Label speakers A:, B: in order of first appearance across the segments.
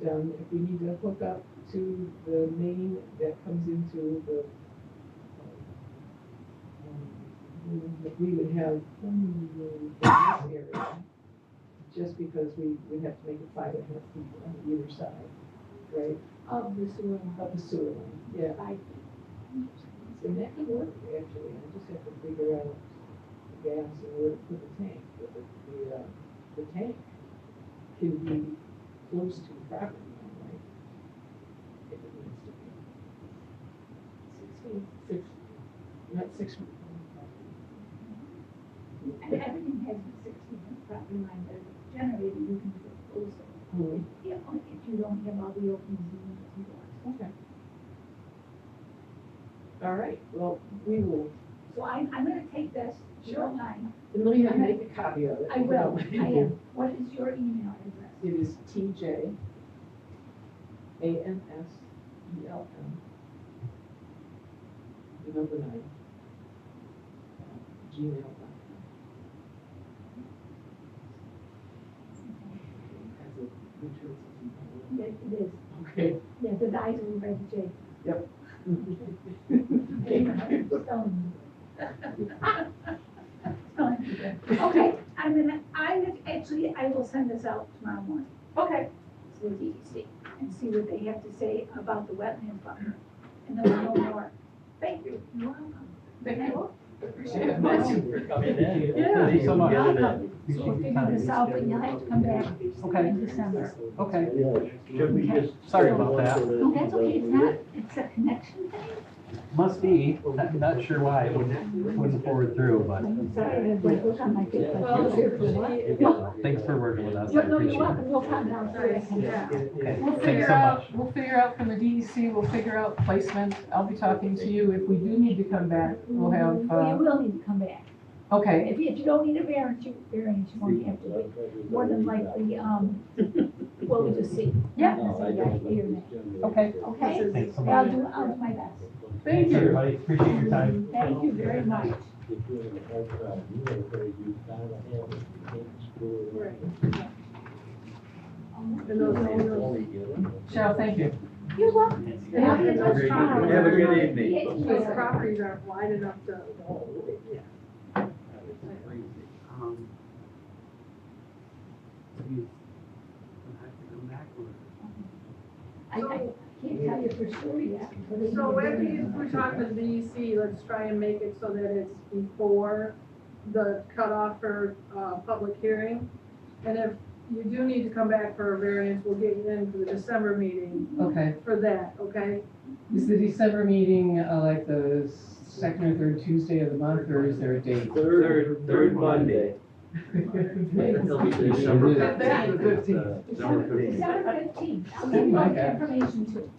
A: done, um, if we need to hook up to the main that comes into the, um, um, we would have one room in this area, just because we, we have to make it five and a half feet on either side, right,
B: of the sewer line.
A: of the sewer line, yeah.
B: I think.
A: And that could work, actually, I just have to figure out the gas and where to put the tank, but the, the, uh, the tank can be close to the property line, right? If it needs to be,
B: Six feet.
A: six, not six.
B: And everything has a six feet of property line, but if generator, you can do it closer.
A: Hmm,
B: Yeah, only if you don't have all the open zones and doors.
A: okay. All right, well, we will,
B: So I, I'm gonna take this, your line,
A: and let me not make a copy of it.
B: I will, I am, what is your email address?
A: It is TJ E A-N-S-E-L-M, the number nine, uh, gmail dot com. As a insurance agent.
B: Yes, it is,
A: Okay.
B: yes, the guys will write the J. Stone. Stone. Okay, I'm gonna, I, actually, I will send this out tomorrow morning.
A: Okay.
B: to the DEC and see what they have to say about the wetland buffer. And then we'll know more. Thank you. You're welcome.
A: Thank you. Appreciate it.
B: Thank
C: Yeah.
D: Thank you so much.
B: You're welcome. So we'll figure this out, but you'll have to come back
C: Okay.
B: in December.
C: Okay,
D: Should we just?
C: Sorry about that.
B: No, that's okay, it's not, it's a connection thing.
C: must be, not, not sure why, it wouldn't, wouldn't forward through, but
B: I'm sorry, I have my book on my face. like
A: Well,
B: this.
C: thanks for working with us, I
B: No, no, you're
C: appreciate it.
B: welcome, we'll come down so I can
E: Yeah.
B: down.
C: Okay,
F: We'll
C: thanks
F: figure
C: so much.
F: out, we'll figure out from the DEC, we'll figure out placement. I'll be talking to you. If we do need to come back, we'll have,
B: Well, you
F: uh,
B: will need to come back.
F: okay,
B: If you, if you don't need a variance, you, variance, you won't have to wait. More than likely, um, well, we'll just see.
F: Yeah.
B: Say yeah, here, nay.
F: okay.
B: Okay?
C: Thanks so
B: I'll
C: much.
B: do, I'll do my best.
C: Thanks,
F: Thank you.
C: everybody, appreciate your time.
B: Thank you very much.
F: Cheryl, thank you.
B: You're welcome.
E: Have
B: Have
E: a
B: a
E: good
B: good
D: Have a good evening.
E: Those
B: evening.
E: properties aren't wide enough to,
G: Um, you would have to come back or?
B: I, I can't tell you for sure yet. but it's-
E: so if we, if we talk with DEC, let's try and make it so that it's before the cutoff for, uh, public hearing. And if you do need to come back for a variance, we'll get you in for the December meeting
F: Okay,
E: for that, okay?
F: is the December meeting, uh, like the second or third Tuesday of the month, or is there a date?
D: Third, third Monday.
C: December
E: fifteenth.
D: December fifteenth.
B: December fifteenth, I'll send you all the information too.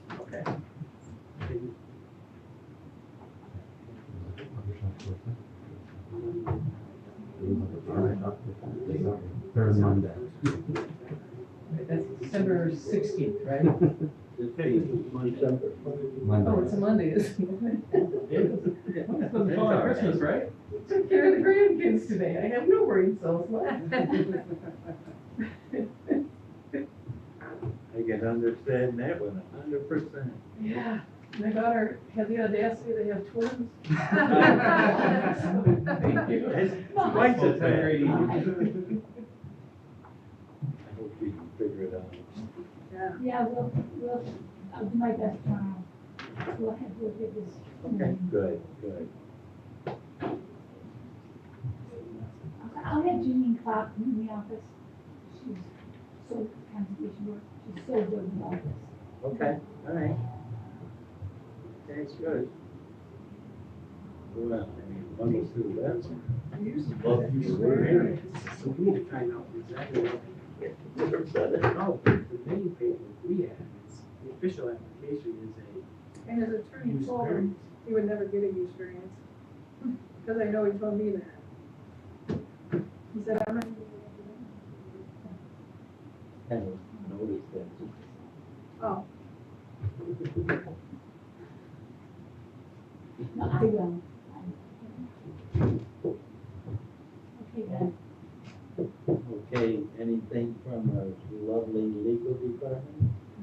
G: Third Monday.
F: That's December sixteenth, right?
D: December.
F: Oh, it's a Monday, isn't it?
C: It's the fall, Christmas, right?
F: Took care of the grandkids today, I have no worries, so.
D: I can understand that one a hundred percent.
F: Yeah, my daughter had the audacity to have twins.
C: Thank you.
D: It's twice as bad.
C: Thank
D: I hope we can figure it out.
E: Yeah.
B: Yeah, we'll, we'll, I'll do my best tomorrow. We'll have, we'll get this.
D: Okay. Good, good.
B: I'll- I'll have Jeanine Clark in the office. She's so conservation work, she's so good in the office.
D: Okay, all right. That's good. Well, I mean, bundle through that one. Love you, we're here.
G: So we need to find out exactly what Oh, the main paper we have is, the official application is
E: And
G: a
E: his attorney
G: use
E: told him
G: variance.
E: He would never get a use variance, because I know he told me that. He said, I'm not.
D: Kind of noticed that.
E: Oh,